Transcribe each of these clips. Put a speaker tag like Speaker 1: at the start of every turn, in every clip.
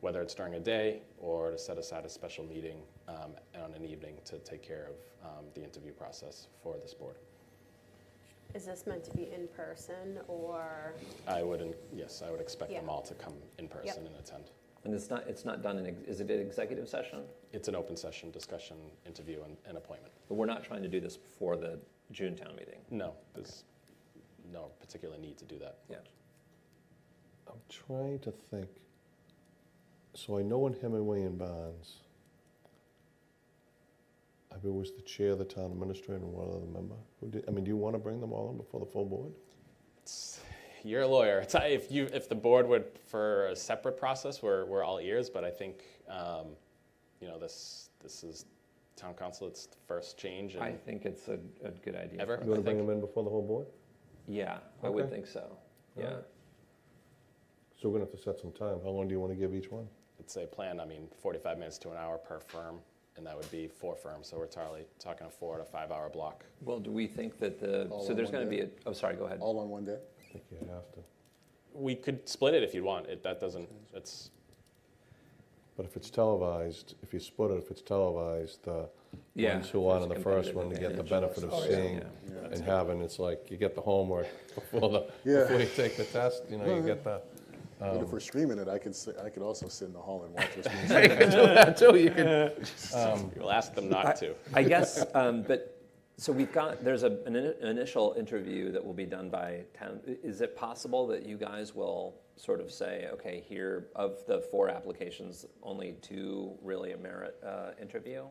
Speaker 1: whether it's during a day or to set aside a special meeting um, on an evening to take care of um, the interview process for this board.
Speaker 2: Is this meant to be in person or,
Speaker 1: I would, en- yes, I would expect them
Speaker 2: Yeah.
Speaker 1: all to come in person and attend.
Speaker 3: And it's not, it's not done in, ex- is it an executive session?
Speaker 1: It's an open session, discussion, interview, and, and appointment.
Speaker 3: But we're not trying to do this before the June town meeting.
Speaker 1: No, there's no particular need to do that.
Speaker 3: Yeah.
Speaker 4: I'm trying to think. So I know in Hemingway and Barnes, I was the chair, the town administrator, and one other member. Who did, I mean, do you want to bring them all in before the full board?
Speaker 1: It's, you're a lawyer. It's, if you, if the board would for a separate process, we're, we're all ears. But I think, um, you know, this this is town council. It's the first change, and
Speaker 3: I think it's a, a good idea.
Speaker 1: Ever?
Speaker 4: You
Speaker 1: I
Speaker 4: want to bring
Speaker 1: think-
Speaker 4: them in before the whole board?
Speaker 3: Yeah, I would
Speaker 4: Okay.
Speaker 3: think so. Yeah.
Speaker 4: Alright. So we're going to have to set some time. How long do you want to give each one?
Speaker 1: it's a plan. I mean, 45 minutes to an hour per firm, and that would be four firms. So we're tarly, talking a four to five hour block.
Speaker 3: Well, do we think that the,
Speaker 5: All
Speaker 3: so
Speaker 5: in
Speaker 3: there's
Speaker 5: one
Speaker 3: going to be
Speaker 5: day?
Speaker 3: a, oh, sorry, go ahead.
Speaker 5: All on one day?
Speaker 4: I think you have to.
Speaker 1: We could split it if you want. It, that doesn't. It's
Speaker 4: But if it's televised, if you split it, if it's televised, the
Speaker 3: Yeah.
Speaker 4: ones who are on
Speaker 3: there's a
Speaker 4: the first
Speaker 3: competitive
Speaker 4: one to get the
Speaker 3: advantage.
Speaker 4: benefit of
Speaker 5: Oh, yeah.
Speaker 4: seeing
Speaker 3: Yeah.
Speaker 5: Yeah.
Speaker 4: and having, it's like you get the homework before, the,
Speaker 5: Yeah.
Speaker 4: before you take the test. You know, you get the.
Speaker 5: But if we're streaming it, I could, si- I could also sit in the hall and watch us.
Speaker 4: Until you can
Speaker 1: you'll ask them not to.
Speaker 3: I guess, um, but, so we've got, there's a, an ini- initial interview that will be done by town. I- Is it possible that you guys will sort of say, okay, here, of the four applications, only two really merit uh, interview?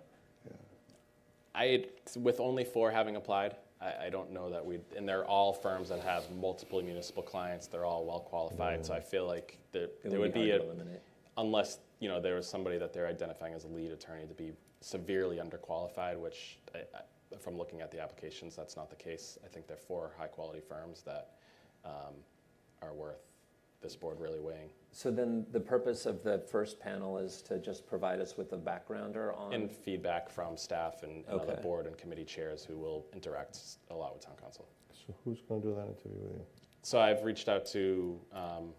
Speaker 1: I with only four having applied. I, I don't know that we and they're all firms that have multiple municipal clients. They're all well qualified. So I feel like there,
Speaker 3: Mm. It
Speaker 1: there would be,
Speaker 3: hard
Speaker 1: a,
Speaker 3: to eliminate.
Speaker 1: unless you know there was somebody that they're identifying as a lead attorney to be severely underqualified, which I, I, from looking at the applications, that's not the case. I think they're four high quality firms that um, are worth this board really weighing
Speaker 3: So then the purpose of the first panel is to just provide us with a backgrounder on.
Speaker 1: and feedback from staff and, and other
Speaker 3: Okay.
Speaker 1: board and committee chairs who will interact s- a lot with town council.
Speaker 4: So who's going to do that interview with you?
Speaker 1: So I've reached out to um,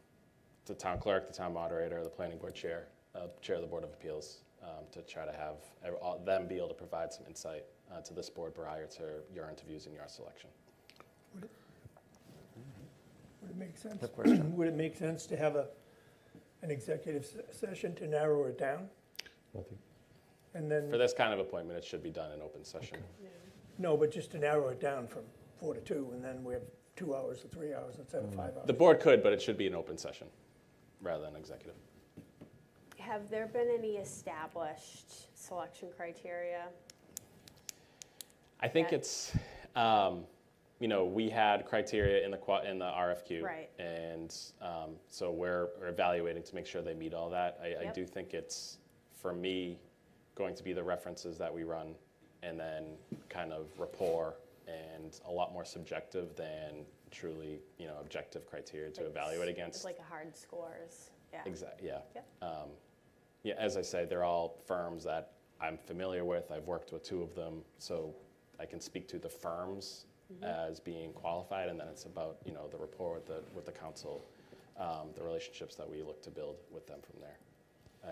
Speaker 1: the town clerk, the town moderator, the planning board chair, uh, chair of the board of appeals, um, to try to have ev- all- them be able to provide some insight uh, to this board prior to your interviews and your selection.
Speaker 6: Would it make sense?
Speaker 3: No question.
Speaker 6: Would it make sense to have a, an executive se- session to narrow it down?
Speaker 4: I think
Speaker 6: And
Speaker 1: For
Speaker 6: then,
Speaker 1: this kind of appointment, it should be done in open session.
Speaker 6: no, but just to narrow it down from four to two, and then we have two hours or three hours instead of five
Speaker 1: Mm. The
Speaker 6: hours.
Speaker 1: board could, but it should be an open session rather than executive.
Speaker 2: have there been any established selection criteria?
Speaker 1: I think
Speaker 2: Yeah.
Speaker 1: it's, um, you know, we had criteria in the qua- in the RFQ,
Speaker 2: Right.
Speaker 1: And um, so we're, we're evaluating to make sure they meet all that. I, I
Speaker 2: Yep.
Speaker 1: do think it's for me going to be the references that we run, and then kind of rapport and a lot more subjective than truly, you know, objective criteria to
Speaker 2: Like
Speaker 1: evaluate
Speaker 2: s-
Speaker 1: against.
Speaker 2: Like a hard scores, yeah.
Speaker 1: Exactly. Yeah.
Speaker 2: Yep.
Speaker 1: Um, yeah. As I say, they're all firms that I'm familiar with. I've worked with two of them, so I can speak to the firms as being qualified, and then it's about you know the rapport with the with the council, um, the relationships that we look to build with them from there,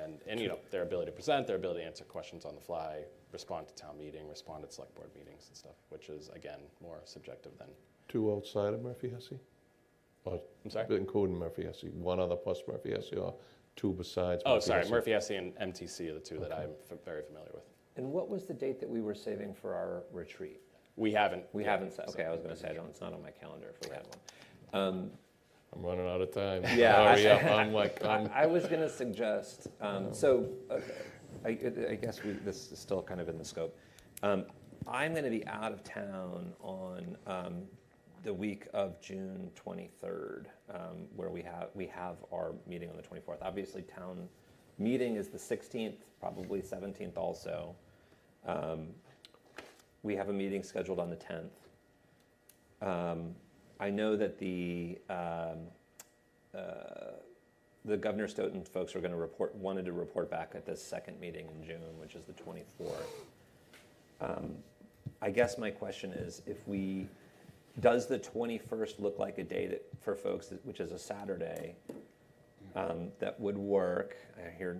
Speaker 1: and and you know their ability to present, their ability to answer questions on the fly, respond to town meeting, respond at select board meetings and stuff, which is again more subjective than.
Speaker 4: Two outside of Murphy Hesse? Or
Speaker 1: I'm sorry.
Speaker 4: including Murphy Hesse, one other plus Murphy Hesse or two besides
Speaker 1: Oh,
Speaker 4: Murphy
Speaker 1: sorry,
Speaker 4: Hesse?
Speaker 1: Murphy Hesse and MTC are the two that I'm f- very familiar with.
Speaker 3: And what was the date that we were saving for our retreat?
Speaker 1: We haven't.
Speaker 3: We
Speaker 1: yeah,
Speaker 3: haven't, sa-
Speaker 1: so-
Speaker 3: okay, I was going to say, I don't, it's not on my calendar if we had one. Um,
Speaker 4: I'm running out of time.
Speaker 3: Yeah, I-
Speaker 4: Hurry up, I'm like, I'm,
Speaker 3: I was going to suggest, um, so uh, I, I guess we, this is still kind of in the scope. Um, I'm going to be out of town on um, the week of June 23rd, um, where we have we have our meeting on the 24th. Obviously, town meeting is the 16th, probably 17th also. Um, we have a meeting scheduled on the 10th. Um, I know that the um, uh, the Governor Stoughton folks were going to report, wanted to report back at this second meeting in June, which is the 24th. Um, I guess my question is, if we, does the 21st look like a day that, for folks, that- which is a Saturday, um, that would work? I hear